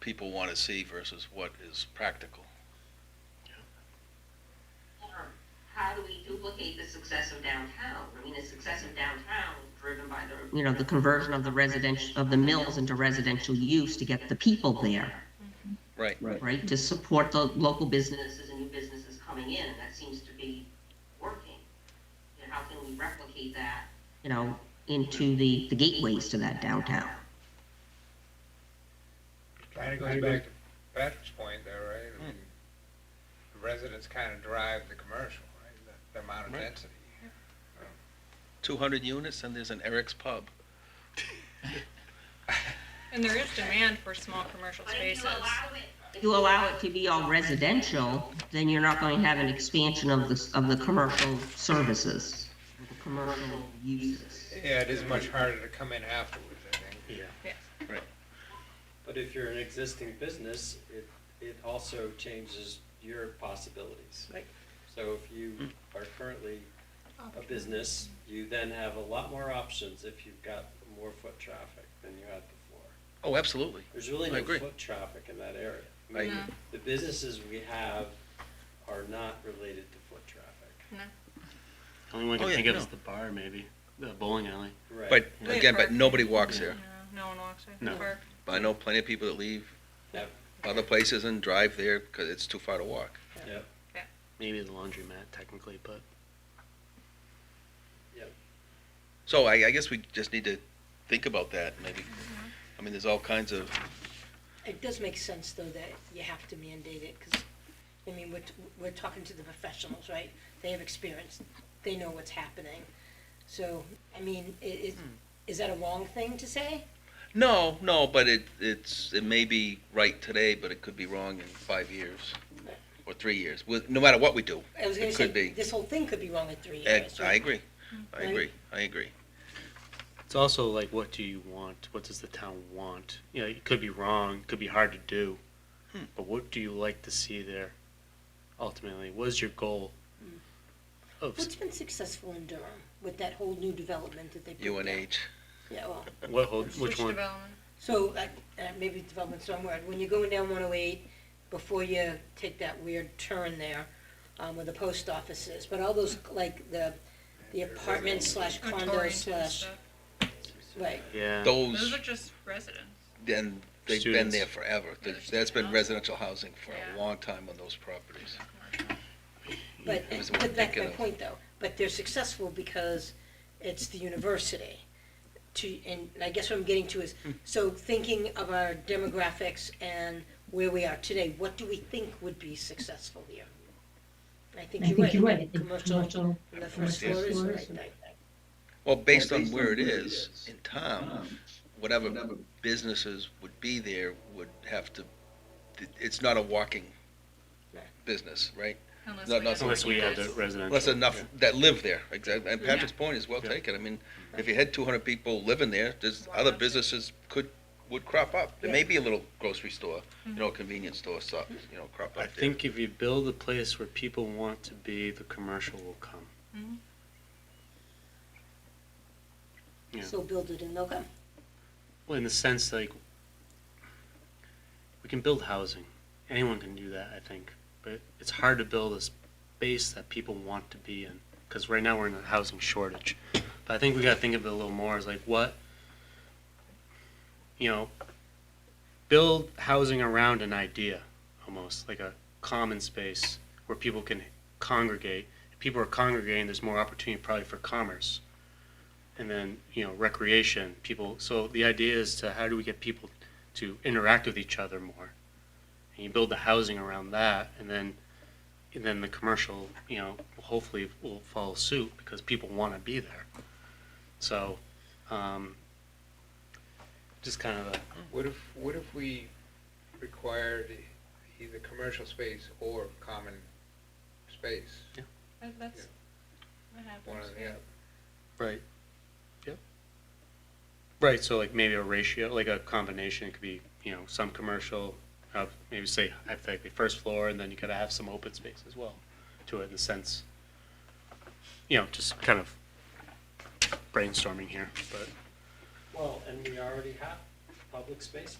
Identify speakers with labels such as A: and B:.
A: people want to see versus what is practical.
B: um, how do we duplicate the success of downtown? I mean, the success of downtown was driven by the.
C: you know, the conversion of the residential, of the mills into residential use to get the people there,
A: Right.
D: Right.
C: right? To support the local business.
B: Businesses and new businesses coming in, and that seems to be working. You know, how can we replicate that?
C: you know, into the, the gateways to that downtown.
E: Kind of goes back to Hmm. Patrick's point though, right? I mean, the residents kind of drive the commercial, right? The- The amount of
A: Right.
E: density.
A: Two hundred units and there's an Eric's Pub.
F: And there is demand for small commercial
B: But if
F: spaces.
B: you allow it.
C: If you allow it to be all residential, then you're not going to have an expansion of the, of the commercial services, of the commercial uses.
E: Yeah, it is much harder to come in afterwards, I think.
D: Yeah.
F: Yeah.
A: Right.
D: But if you're an existing business, it, it also changes your possibilities.
F: Right.
D: So if you are currently a business, you then have a lot more options if you've got more foot traffic than you had before.
A: Oh, absolutely.
D: There's really
A: I
D: no
A: agree.
D: foot traffic in that area. I
A: I-
D: mean,
F: No.
D: The businesses we have are not related to foot traffic.
G: Only one I
A: Oh,
G: can
A: yeah,
G: think of
A: no.
G: is the bar, maybe the bowling alley.
D: Right.
A: But
F: Yeah.
A: again, but nobody walks
F: No,
A: there.
F: no one walks there.
G: No.
F: Park.
A: I know plenty of people that leave
D: Yep.
A: other places and drive there because it's too far to walk.
D: Yep.
G: Maybe the laundromat, technically, but
A: So I, I guess we just need to think about that maybe.
D: Mm-hmm.
A: I mean, there's all kinds of,
H: It does make sense, though, that you have to mandate it, because, I mean, we're, t- we're talking to the professionals, right? They have experience, they know what's happening. So, I mean, i- is,
A: Hmm.
H: is that a wrong thing to say?
A: no, no, but it, it's, it may be right today, but it could be wrong in five years or three years, with, no matter what we do.
H: I was gonna
A: It could
H: say,
A: be.
H: this whole thing could be wrong in three
A: And
H: years.
A: I
H: right?
A: agree.
D: Mm-hmm.
A: I agree. I agree.
G: it's also like, what do you want? What does the town want? You know, it could be wrong, could be hard to do,
A: Hmm.
G: but what do you like to see there? Ultimately, what is your goal?
A: Hmm.
G: Of
H: What's been successful in Durham with that whole new development that they put down?
A: UNH.
H: Yeah, well,
G: what? Hold,
F: Switch
G: which one?
F: development.
H: so, like, uh, maybe development's the wrong word, when you're going down one oh eight, before you take that weird turn there, um, where the post office is, but all those, like, the, the apartment slash
F: or
H: condo
F: Torrington oh, and
H: slash,
F: stuff.
H: right,
G: Yeah.
F: Those
A: Those,
F: are just residents.
A: and they've been
G: Students.
A: there forever.
F: Yeah,
A: That's been
F: students.
A: residential housing for
F: Yeah.
A: a long time on those properties.
H: but,
A: It was
H: but that's my
A: ridiculous.
H: point, though, but they're successful because it's the university. To, and I guess what I'm getting to is,
A: Hmm.
H: so thinking of our demographics and where we are today, what do we think would be successful here? I think
I: I
H: you're right.
I: think you're right, I think
H: Commercial,
I: commercial,
H: on the first floor is the right thing.
A: Well, based on where it is in town, whatever businesses would be there would have to, it's not a walking business, right?
F: Unless
A: No,
F: we
A: no,
F: have
G: Unless we have the
F: workers.
G: residential.
A: Unless enough that live there, exactly. And
F: Yeah.
A: Patrick's point is well
G: Yeah.
A: taken. I mean, if you had two hundred people living there, there's
F: Why
A: other
F: not?
A: businesses could, would crop up. There may
H: Yeah.
A: be a little grocery store, you
F: Mm-hmm.
A: know, convenience store, so, you know, crop up there.
G: I think if you build a place where people want to be, the commercial will come. Yeah.
H: So build it and they'll come.
G: Well, in the sense like we can build housing. Anyone can do that, I think. But it's hard to build a space that people want to be in because right now we're in a housing shortage. But I think we got to think of it a little more as like what you know, build housing around an idea almost like a common space where people can congregate. If people are congregating, there's more opportunity probably for commerce and then you know recreation people so the idea is to how do we get people to interact with each other more and you build the housing around that and then and then the commercial you know hopefully will follow suit because people want to be there so um, just kind of a
E: What if, what if we required either commercial space or common space,
F: That- That's what
E: one or
F: happens.
E: the other?
G: right yep right so like maybe a ratio like a combination it could be you know some commercial uh, maybe say hypothetically first floor and then you could have some open space as well to it in the sense you know just kind of brainstorming here but
D: Well, and we already have public space